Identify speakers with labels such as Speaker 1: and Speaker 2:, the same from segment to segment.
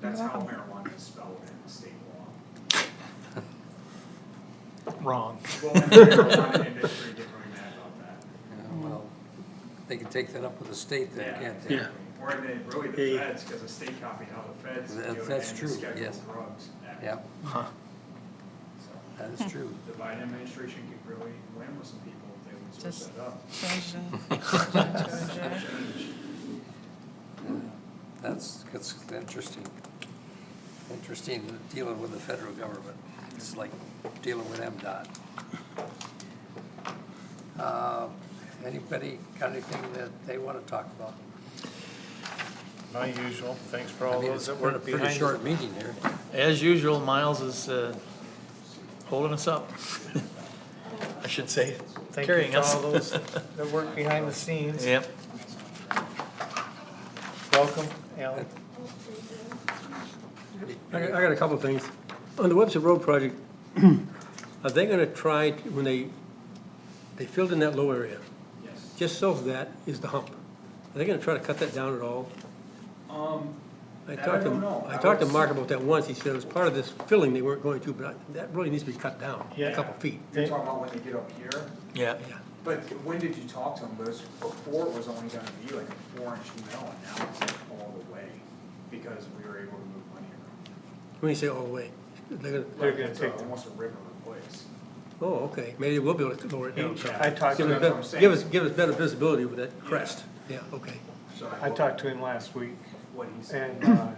Speaker 1: That's how
Speaker 2: Wow.
Speaker 1: marijuana is spelled in state law.
Speaker 3: Wrong.
Speaker 1: Well, in the marijuana industry didn't really mad about that.
Speaker 4: Yeah, well, they can take that up with the state then,
Speaker 1: Yeah.
Speaker 4: can't they?
Speaker 3: Yeah.
Speaker 1: Or in the, really
Speaker 3: Hey.
Speaker 1: the feds, because the state copied how the feds do it
Speaker 4: That-
Speaker 1: and the
Speaker 4: that's true,
Speaker 1: scheduled
Speaker 4: yes.
Speaker 1: drugs. act.
Speaker 4: Yeah,
Speaker 3: Huh.
Speaker 1: So,
Speaker 4: that is true.
Speaker 1: The Biden administration could really win with some people if they would
Speaker 2: Just-
Speaker 1: switch that up.
Speaker 2: Change it, change
Speaker 5: Oh,
Speaker 2: it, change it.
Speaker 1: Change.
Speaker 4: That's, that's interesting. Interesting dealing with the federal government. It's like dealing with MDOT. Uh, Anybody got anything that they want to talk about?
Speaker 6: My usual, thanks for
Speaker 4: I
Speaker 6: all
Speaker 4: mean, it's
Speaker 6: those that
Speaker 4: been a
Speaker 6: worked
Speaker 4: pretty
Speaker 6: behind.
Speaker 4: short meeting here.
Speaker 3: As usual, Miles is uh, holding us up. I should say,
Speaker 6: Thank you
Speaker 3: carrying
Speaker 6: to
Speaker 3: us.
Speaker 6: all those that worked behind the scenes.
Speaker 3: Yep.
Speaker 6: Welcome, Alan.
Speaker 5: I got, I got a couple of things. On the Webster Road project, are they gonna try, to- when they, they filled in that low area,
Speaker 1: Yes.
Speaker 5: just south of that is the hump. Are they gonna try to cut that down at all?
Speaker 1: Um,
Speaker 5: I
Speaker 1: That I
Speaker 5: talked to
Speaker 1: don't know.
Speaker 5: I talked to
Speaker 1: I
Speaker 5: Mark
Speaker 1: was-
Speaker 5: about that once, he said it was part of this filling they weren't going to, but I- that really needs to be cut down, a
Speaker 6: Yeah.
Speaker 5: couple feet.
Speaker 1: you're talking about when they get up here,
Speaker 3: Yeah.
Speaker 5: Yeah.
Speaker 1: but when did you talk to them? Because before it was only gonna be like a four inch mill and now it's like all the way because we were able to move money around.
Speaker 5: When you say all the way, they're gonna,
Speaker 6: They're gonna
Speaker 1: It's
Speaker 6: take the-
Speaker 1: Almost a river replace.
Speaker 5: oh, okay, maybe they will be able to lower it down.
Speaker 6: I talked
Speaker 5: Give
Speaker 6: to
Speaker 5: us
Speaker 1: That's what
Speaker 6: him,
Speaker 1: I'm
Speaker 5: bet-
Speaker 1: saying.
Speaker 5: Give us, give us better visibility with that crest, yeah, okay.
Speaker 1: So
Speaker 6: I talked to him last week,
Speaker 1: What he said.
Speaker 6: and uh,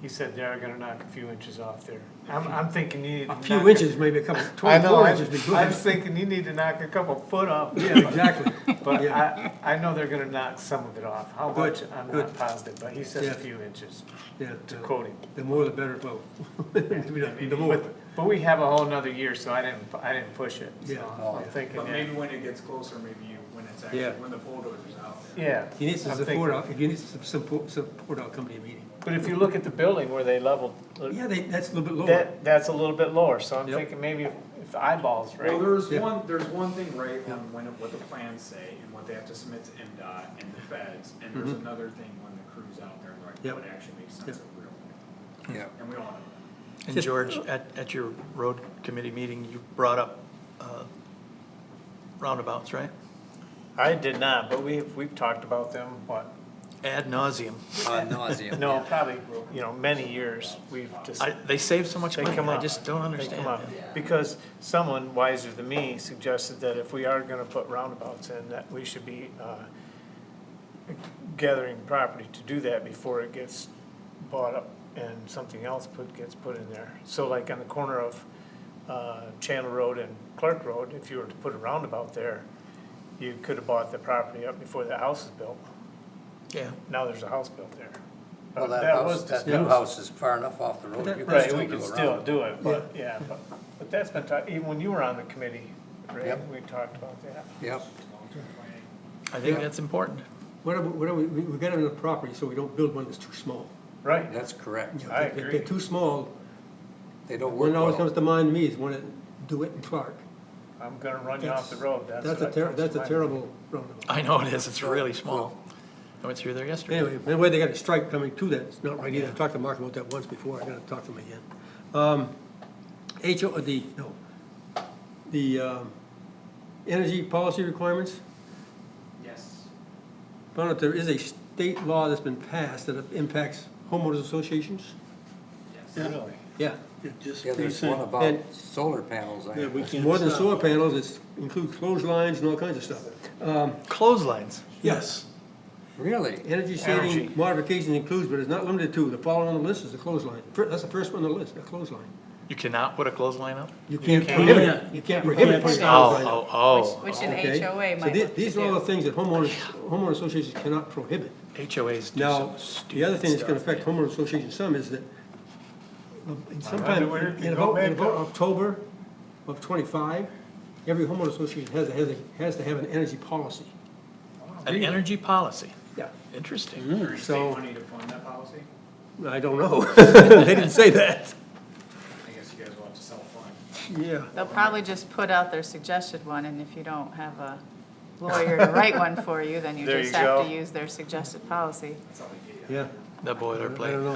Speaker 6: he said they are gonna knock a few inches off there. I'm, I'm thinking you need. to
Speaker 5: A few
Speaker 6: knock
Speaker 5: inches, maybe a couple,
Speaker 6: I know,
Speaker 5: twenty-four
Speaker 6: I
Speaker 5: inches would be good.
Speaker 6: I was thinking you need to knock a couple foot off,
Speaker 5: Yeah, exactly.
Speaker 6: but
Speaker 5: Yeah.
Speaker 6: I, I know they're gonna knock some of it off. How much,
Speaker 5: Good,
Speaker 6: I'm
Speaker 5: good.
Speaker 6: not positive, but he said
Speaker 5: Yeah.
Speaker 6: a few inches,
Speaker 5: Yeah,
Speaker 6: to
Speaker 5: the-
Speaker 6: quote him.
Speaker 5: The more the better, well, the more.
Speaker 6: But, but we have a whole nother year, so I didn't, I didn't push it,
Speaker 5: Yeah.
Speaker 6: so I'm thinking,
Speaker 1: But
Speaker 6: yeah.
Speaker 1: maybe when it gets closer, maybe you, when it's actually,
Speaker 5: Yeah.
Speaker 1: when the bulldozer's out there.
Speaker 6: Yeah.
Speaker 5: He needs some
Speaker 6: I'm
Speaker 5: support,
Speaker 6: thinking-
Speaker 5: out- he needs some support, support out coming to your meeting.
Speaker 6: But if you look at the building where they leveled, uh,
Speaker 5: Yeah, they, that's a little bit lower.
Speaker 6: that, that's a little bit lower, so I'm
Speaker 5: Yep.
Speaker 6: thinking maybe if- if the eyeballs,
Speaker 1: Well,
Speaker 6: right?
Speaker 1: there's
Speaker 5: Yeah.
Speaker 1: one, there's one thing right on when, what the plans say and what they have to submit to MDOT and the feds, and there's
Speaker 6: Mm-hmm.
Speaker 1: another thing when the crew's out there, like,
Speaker 5: Yep.
Speaker 1: what actually makes sense
Speaker 5: Yep.
Speaker 1: of real life,
Speaker 4: Yeah.
Speaker 1: and we all know
Speaker 3: And
Speaker 5: Just-
Speaker 3: George, at, at your road committee meeting, you brought up uh, roundabouts, right?
Speaker 6: I did not, but we, we've talked about them, what,
Speaker 3: Ad nauseum.
Speaker 6: Uh,
Speaker 4: Ad nauseum.
Speaker 6: no, probably, you know, many years, we've just.
Speaker 3: I, they save so much
Speaker 6: They
Speaker 3: money,
Speaker 6: come
Speaker 3: I
Speaker 6: up.
Speaker 3: just don't
Speaker 6: They come
Speaker 3: understand.
Speaker 6: up, because someone wiser than me suggested that if we are gonna put roundabouts in, that we should be, uh, gathering property to do that before it gets bought up and something else put, gets put in there. So like on the corner of, uh, Channel Road and Clark Road, if you were to put a roundabout there, you could have bought the property up before the house is built.
Speaker 3: Yeah.
Speaker 6: Now there's a house built there.
Speaker 4: Well,
Speaker 6: But
Speaker 4: that house,
Speaker 6: was
Speaker 4: that new
Speaker 6: discussed.
Speaker 4: house is far enough off the road. you can
Speaker 6: Right,
Speaker 4: still
Speaker 6: we
Speaker 4: do
Speaker 6: can
Speaker 4: a
Speaker 6: still
Speaker 4: roundabout.
Speaker 6: do it, but, yeah, but, but that's been, talked even when you were on the committee, Ray,
Speaker 4: Yep.
Speaker 6: we talked about that.
Speaker 4: Yep,
Speaker 1: that, long-term planning.
Speaker 3: I think that's important.
Speaker 5: What are, we- what are, we, we we got enough property, so we don't build one that's too small.
Speaker 6: Right,
Speaker 4: that's correct.
Speaker 5: You know,
Speaker 6: I
Speaker 5: if
Speaker 6: agree.
Speaker 5: They're too small,
Speaker 4: They don't work
Speaker 5: one that always
Speaker 4: well.
Speaker 5: comes to mind to me is one at DeWitt and Clark.
Speaker 6: I'm gonna run you off the
Speaker 5: That's-
Speaker 6: road, that's.
Speaker 5: That's a
Speaker 6: what
Speaker 5: ter,
Speaker 6: comes to
Speaker 5: that's a
Speaker 6: mind.
Speaker 5: terrible roundabout.
Speaker 3: I know it is, it's really small. I went through there yesterday.
Speaker 5: Anyway, the way they got a strike coming to that, it's not right either. I talked to Mark about that once before, I gotta talk to him again. Um, HO, uh, the, no, the, um, energy policy requirements,
Speaker 1: Yes,
Speaker 5: found out there is a state law that's been passed that impacts homeowners associations.
Speaker 1: yes.
Speaker 6: Really?
Speaker 5: Yeah,
Speaker 4: Yeah, there's one about
Speaker 5: And-
Speaker 4: solar panels, I think.
Speaker 5: it's more than solar panels, it's includes clotheslines and all kinds of stuff.
Speaker 3: Clotheslines.
Speaker 5: Yes.
Speaker 4: Really?
Speaker 5: Energy
Speaker 6: Energy.
Speaker 5: saving modifications includes, but is not limited to, the following on the list is the clothesline. Fir- That's the first one on the list, a clothesline.
Speaker 3: You cannot put a clothesline up?
Speaker 5: You can't prohibit it, you can't prohibit putting it out right now.
Speaker 3: Oh, oh,
Speaker 2: Which an
Speaker 5: Okay?
Speaker 2: HOA
Speaker 5: So
Speaker 2: might
Speaker 5: the-
Speaker 2: want to
Speaker 5: These are all the
Speaker 2: do.
Speaker 5: things that homeowners, homeowner associations cannot prohibit.
Speaker 3: oh, HOAs do
Speaker 5: Now,
Speaker 3: some
Speaker 5: the other
Speaker 3: stupid
Speaker 5: thing that's gonna
Speaker 3: stuff.
Speaker 5: affect homeowner associations some is that um, in sometime,
Speaker 6: where it
Speaker 5: in
Speaker 6: could
Speaker 5: in
Speaker 6: go
Speaker 5: about,
Speaker 6: back
Speaker 5: in about
Speaker 6: up.
Speaker 5: October of twenty-five, every homeowner association has, has, a- has to have an energy policy.
Speaker 3: An energy policy,
Speaker 5: Yeah.
Speaker 3: interesting.
Speaker 1: State
Speaker 5: So,
Speaker 1: money to fund that policy,
Speaker 5: I don't know, they didn't say that,
Speaker 1: I guess you guys will have to self-fund.
Speaker 5: yeah.
Speaker 2: They'll probably just put out their suggested one, and if you don't have a lawyer to write one for you, then you
Speaker 6: There
Speaker 2: just
Speaker 6: you
Speaker 2: have
Speaker 6: go.
Speaker 2: to use their suggested policy.
Speaker 1: That's how they get you.
Speaker 5: Yeah.
Speaker 3: That
Speaker 5: I don't
Speaker 3: boilerplate.
Speaker 5: know.